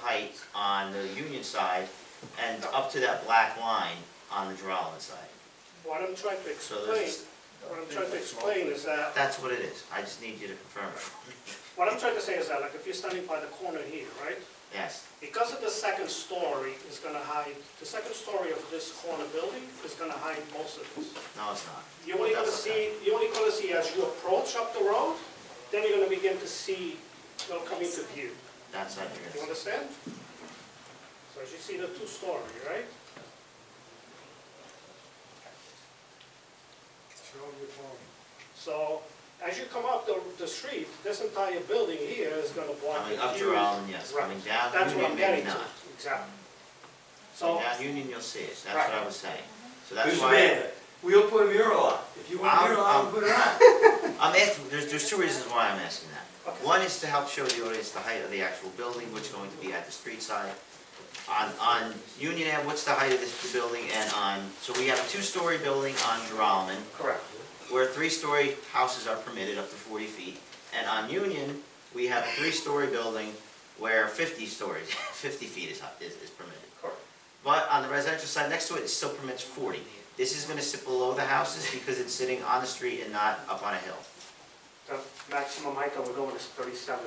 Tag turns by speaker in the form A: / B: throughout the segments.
A: height on the Union side and up to that black line on the Droneman side.
B: What I'm trying to
A: So
B: explain,
A: there's,
B: what I'm trying to explain is that,
A: that's what it is, I just need you to confirm it,
B: what I'm trying to say is that, like, if you're standing by the corner here, right?
A: yes.
B: Because of the second story is gonna hide, the second story of this corner building is gonna hide most of this.
A: No, it's not.
B: You're only gonna
A: That's okay.
B: see, you're only gonna see as you approach up the road, then you're gonna begin to see, it'll come into view.
A: That's not
B: You
A: yours.
B: understand? So as you see the two-story, right?
C: Show your phone.
B: So as you come up the, the street, this entire building here is gonna block the
A: Coming
B: view.
A: up Droneman, yes,
B: Right.
A: coming down
B: That's what
A: Union,
B: I'm
A: maybe
B: getting to,
A: not.
B: exactly. So,
A: Coming down Union, you'll see it, that's what I
B: Right.
A: was saying. So that's
D: Mr.
A: why,
D: Mayor, we'll put a mural up. If you want a
A: I'm-
D: mural, I'll
A: I'm-
D: put it up.
A: I'm asking, there's, there's two reasons why I'm asking that.
B: Okay.
A: One is to help show the audience the height of the actual building, which is going to be at the street side. On, on Union Ave, what's the height of this building, and on, so we have a two-story building on Geralman,
B: correct,
A: where three-story houses are permitted up to forty feet. And on Union, we have a three-story building where fifty stories, fifty feet is, is is permitted.
B: correct.
A: But on the residential side next to it, it still permits forty. This is gonna sit below the houses because it's sitting on the street and not up on a hill.
B: The maximum height that we're going is thirty-seven.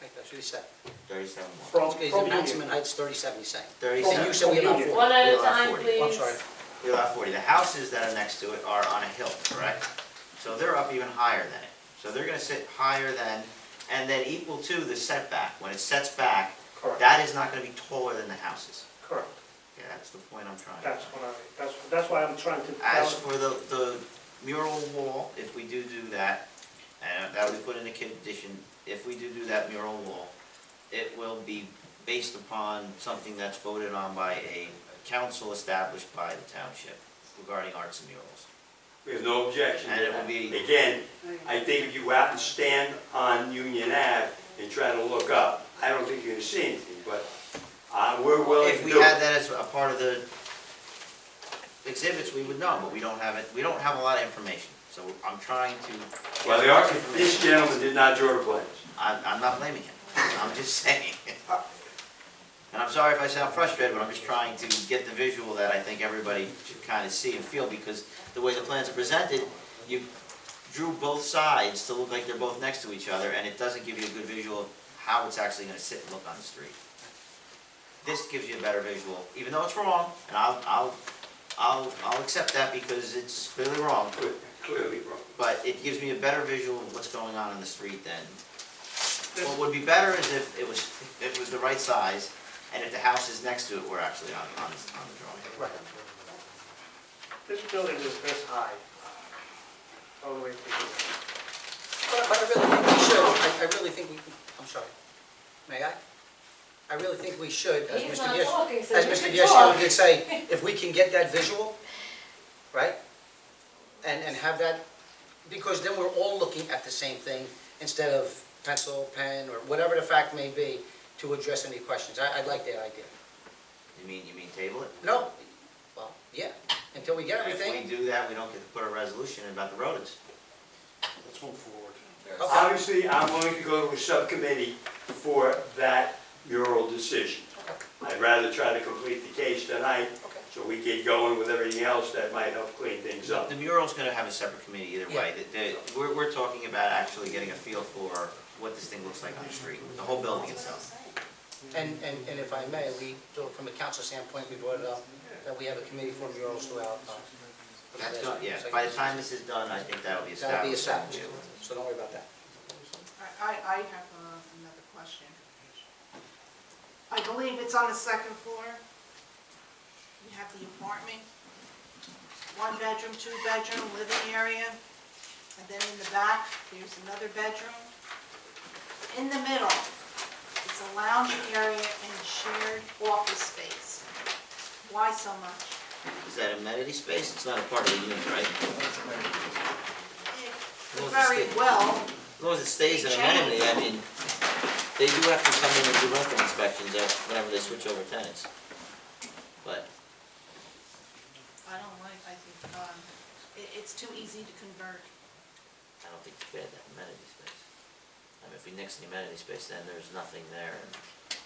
E: Right, That's what he said.
A: Thirty-seven one.
B: From,
E: Okay, the
B: from
E: maximum
B: Union.
E: height's thirty-seven, he's saying. And you
A: Thirty-seven,
E: said we allow
B: Union.
E: four.
F: One at a
A: You're on
F: time,
A: 40.
F: please.
E: I'm sorry.
A: we allow forty. The houses that are next to it are on a hill, correct? So they're up even higher than it. So they're gonna sit higher than, and then equal to the setback. When it sets back,
B: Correct,
A: that is not gonna be taller than the houses.
B: correct.
A: Yeah, that's the point I'm trying to make.
B: That's what I, that's, that's why I'm trying to.
A: As for the, the mural wall, if we do do that, and that we put in a condition, if we do do that mural wall, it will be based upon something that's voted on by a council established by the township regarding arts and murals.
D: We have no objection. to
A: And it will
D: that.
A: be-
D: Again, I think if you go out and stand on Union Ave and try to look up, I don't think you're gonna see anything, but uh, we're willing
A: If
D: to
A: we
D: do
A: had
D: it.
A: that as a part of the exhibits, we would know, but we don't have it, we don't have a lot of information, so I'm trying to.
D: Well, the architect, this gentleman did not draw the plans.
A: I'm, I'm not blaming him, I'm just saying. And I'm sorry if I sound frustrated, but I'm just trying to get the visual that I think everybody should kind of see and feel, because the way the plans are presented, you drew both sides to look like they're both next to each other, and it doesn't give you a good visual of how it's actually gonna sit and look on the street. This gives you a better visual, even though it's wrong, and I'll, I'll, I'll, I'll accept that because it's clearly wrong,
D: Clearly wrong.
A: but it gives me a better visual of what's going on in the street than what would be better is if it was, if it was the right size, and if the houses next to it were actually on, on, on the drawing.
E: Right.
B: This building is this high, all the way to here.
E: But but I really think we should, I, I really think we, I'm sorry. May I? I really think we should, as
F: He's
E: Mr.
F: not
E: Gassion,
F: talking, so
E: as
F: you
E: Mr.
F: can
E: Gassion
F: talk.
E: did say, if we can get that visual, right? And, and have that, because then we're all looking at the same thing instead of pencil, pen, or whatever the fact may be to address any questions. I, I like that idea.
A: You mean, you mean table it?
E: No, well, yeah, until we get
A: If
E: everything,
A: we do that, we don't get to put a resolution in about the rodents.
C: Let's move forward.
E: Okay.
D: Obviously, I'm willing to go to a subcommittee for that mural decision. I'd rather try to complete the case tonight,
E: Okay.
D: so we get going with everything else that might help clean things up.
A: The mural's gonna have a separate committee either way. The- the- we're, we're talking about actually getting a feel for what this thing looks like on the street, the whole building itself.
E: and, and, and if I may, we, from a council standpoint, we brought it up, that we have a committee for murals throughout. uh, for the
A: That's done,
E: last-
A: yeah, by the time this is done, I think that'll be
E: That'll be
A: established.
E: established, so don't worry about that.
G: I, I I have uh, another question. I believe it's on the second floor. You have the apartment, one bedroom, two bedroom, living area, and then in the back, there's another bedroom. In the middle, it's a lounge area and shared office space. Why so much?
A: Is that amenity space? It's not a part of the unit, right?
G: It
A: Well,
G: could
A: it's
G: very
A: the-
G: well
A: As long as it stays in amenity, I mean, they do have to come in and do rental inspections at- whenever they switch over tenants. But,
G: I don't like, I think, um, it, it's too easy to convert.
A: I don't think it's bad, that amenity space. I mean, if we nix the amenity space, then there's nothing there, and